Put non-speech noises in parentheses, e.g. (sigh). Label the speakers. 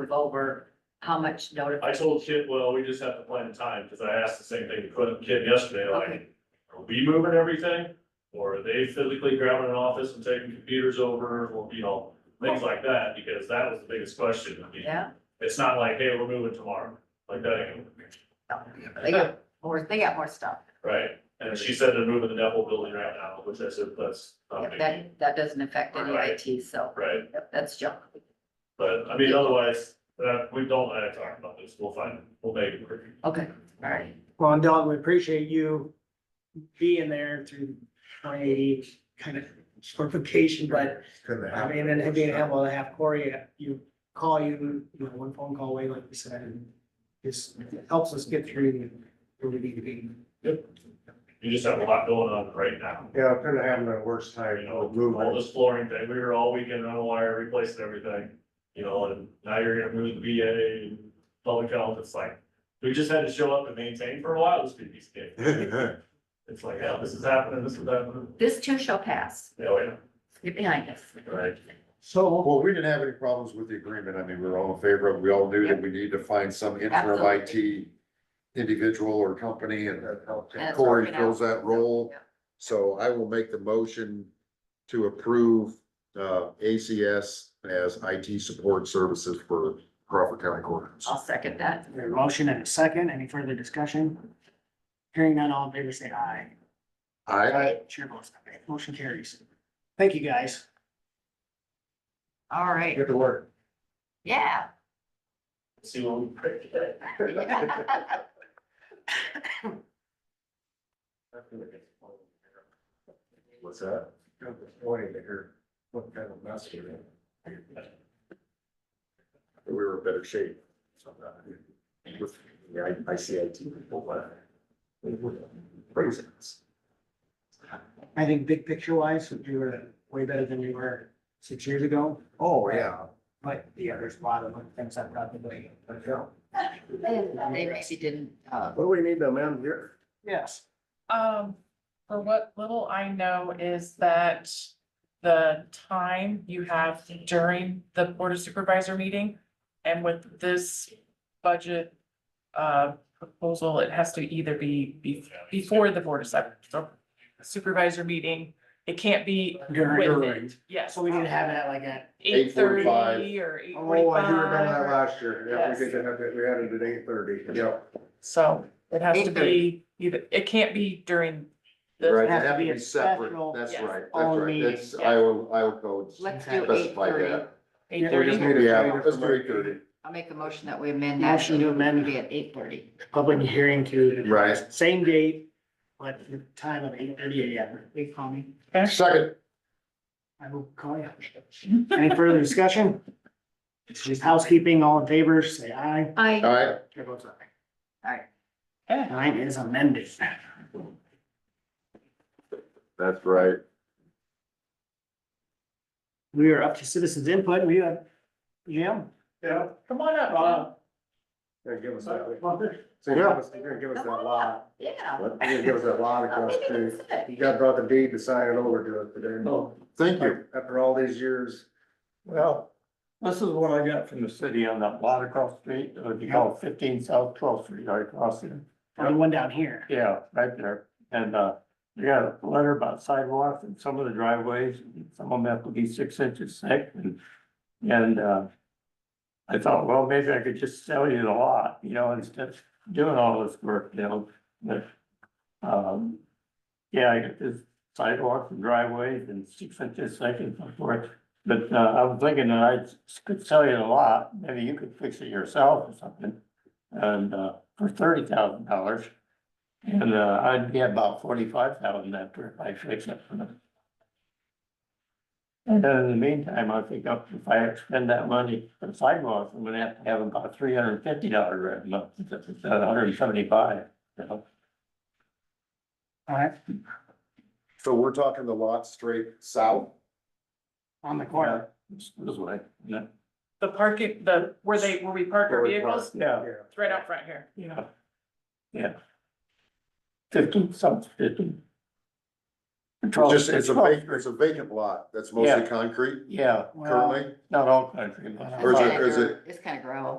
Speaker 1: move over, how much notice?
Speaker 2: I told Kit, well, we just have to plan the time, because I asked the same thing to Quinn- Kit yesterday, like, are we moving everything? Or are they physically grabbing an office and taking computers over, or, you know, things like that, because that was the biggest question. I mean,
Speaker 1: Yeah,
Speaker 2: It's not like, hey, we're moving tomorrow, like that, ain't gonna work,
Speaker 1: they got more, they got more stuff.
Speaker 2: right? And she said they're moving the Neville building right now, which I said, that's not
Speaker 1: Yep,
Speaker 2: big, deal,
Speaker 1: That, that doesn't affect any IT, so
Speaker 2: right?
Speaker 1: yep, that's junk.
Speaker 2: But, I mean, otherwise, uh, we don't, I talked about this, we'll find, we'll make it work.
Speaker 1: Okay, all right.
Speaker 3: Well, and Don, we appreciate you being there through twenty eighty kind of certification, but I mean, and being able to have Corey, uh, you call you, you know, one phone call away, like you said, and just helps us get through where we need to be.
Speaker 2: You just have a lot going on right now.
Speaker 4: Yeah, could have happened at a worse time, Oh,
Speaker 2: You
Speaker 4: you
Speaker 2: know,
Speaker 4: know,
Speaker 2: all
Speaker 4: moving.
Speaker 2: this flooring thing, we were all weekend on wire replacing everything, you know, and now you're gonna move the VA and public health, it's like. We just had to show up and maintain for a while, this could be (laughs) scary.
Speaker 4: (laughs)
Speaker 2: It's like, yeah, this is happening, this is happening,
Speaker 1: This too shall pass.
Speaker 2: yeah, yeah,
Speaker 1: Get behind us.
Speaker 2: right,
Speaker 3: So,
Speaker 4: Well, we didn't have any problems with the agreement. I mean, we were all in favor of, it. we all knew that we need to find some interim IT individual or company and that helped.
Speaker 1: And it's
Speaker 4: Corey
Speaker 1: working out.
Speaker 4: fills that role.
Speaker 1: Yeah.
Speaker 4: So I will make the motion to approve, uh, ACS as IT support services for Crawford County Courthouse.
Speaker 1: I'll second that.
Speaker 3: we have a motion and a second, any further discussion? Hearing none, all in favor, say aye.
Speaker 4: I,
Speaker 3: Chair votes aye, motion carries. Thank you, guys.
Speaker 1: All right,
Speaker 4: to work.
Speaker 1: yeah. (laughs)
Speaker 2: see what we pray today.
Speaker 4: What's that? Pointing to her, what kind of mess we We were in better shape. With the I, I C I T people, but. they were Craziness.
Speaker 3: I think big picture wise, we were way better than we were six years ago,
Speaker 4: Oh, yeah.
Speaker 3: but yeah, there's a lot of things that probably.
Speaker 1: They actually didn't, uh,
Speaker 4: What do we need to amend here?
Speaker 3: Yes.
Speaker 5: Um, for what little I know is that the time you have during the board of supervisor meeting and with this budget uh proposal, it has to either be be- before the board of Sup- so supervisor meeting. It can't be with
Speaker 3: During,
Speaker 5: it. Yes.
Speaker 3: so we need to have that like that.
Speaker 5: Eight thirty
Speaker 4: 8:45.
Speaker 5: or eight
Speaker 4: Oh, I do remember
Speaker 3: Um,
Speaker 4: that
Speaker 5: forty-five.
Speaker 4: last year. Yeah, we did have it, we had it at eight thirty. Yep.
Speaker 5: So it has to
Speaker 1: 8:30.
Speaker 5: be either, it can't be during
Speaker 4: Right,
Speaker 5: the
Speaker 4: it
Speaker 3: has to
Speaker 4: had to
Speaker 3: be a
Speaker 4: be separate.
Speaker 3: special-
Speaker 4: That's
Speaker 5: Yes.
Speaker 4: right, that's
Speaker 3: All
Speaker 4: right. That's
Speaker 5: meeting, yeah.
Speaker 4: Iowa, Iowa codes.
Speaker 1: let's do eight
Speaker 4: Specify
Speaker 1: thirty.
Speaker 4: that.
Speaker 5: eight
Speaker 4: We just
Speaker 5: thirty.
Speaker 4: need to, yeah, let's do eight thirty.
Speaker 1: I'll make a motion that we amend that.
Speaker 3: Motion to amend.
Speaker 1: It'll Be at eight thirty.
Speaker 3: Public hearing to.
Speaker 4: Right.
Speaker 3: Same date, but the time of eight thirty AM.
Speaker 1: We call me.
Speaker 4: Second,
Speaker 3: I will call you. Any further discussion? It's just housekeeping, all in favor, say aye.
Speaker 4: all
Speaker 1: I,
Speaker 4: right,
Speaker 3: Chair votes aye.
Speaker 5: Okay.
Speaker 3: Mine is amended.
Speaker 4: that's right.
Speaker 3: We are up to citizens input. We have, Jim? Uh,
Speaker 4: Yeah.
Speaker 5: Come on up.
Speaker 4: They're gonna give us that,
Speaker 3: Well,
Speaker 4: so you're gonna- they're gonna give us that lot,
Speaker 1: yeah.
Speaker 4: they're gonna give us that lot
Speaker 1: I'll
Speaker 4: across
Speaker 1: make it
Speaker 3: (laughs)
Speaker 4: too.
Speaker 1: sit.
Speaker 4: You got brought the deed to sign it over to us today. Thank you. After all these years.
Speaker 6: Oh, Well, this is what I got from the city on that lot across the street, uh, it would be called fifteen South Twelfth Street, right across there.
Speaker 3: The one down here.
Speaker 6: Yeah, right there. And, uh, we got a letter about sidewalks and some of the driveways, some of them have to be six inches thick and, and, uh, I thought, well, maybe I could just sell you the lot, you know, instead of doing all this work, you know, but, um, yeah, I got this sidewalks and driveways and six inches thick and so forth. But, uh, I was thinking that I could sell you the lot, maybe you could fix it yourself or something. And, uh, for thirty thousand dollars. And uh, I'd get about forty-five thousand after I fix it for them. And then in the meantime, I think up- if I spend that money for sidewalks, I'm gonna have to have about three hundred and fifty dollars a month, instead of hundred and seventy-five, you know?
Speaker 3: All right,
Speaker 4: So we're talking the lot straight south?
Speaker 3: on the corner.
Speaker 6: This this way, yeah,
Speaker 5: The parking, the, where they, where we park
Speaker 4: Where
Speaker 5: our
Speaker 4: we
Speaker 5: vehicles,
Speaker 6: yeah,
Speaker 5: it's right out front here.
Speaker 6: yeah. Yeah. Fifteen, some fifteen. Control-
Speaker 4: It's just, it's a vacant,
Speaker 6: control-
Speaker 4: it's a vacant lot that's mostly
Speaker 6: Yeah.
Speaker 4: concrete
Speaker 6: Yeah,
Speaker 3: Well,
Speaker 4: currently,
Speaker 6: not all country. but a
Speaker 4: Or is
Speaker 6: lot.
Speaker 4: it- is it-
Speaker 1: It's kind of grow.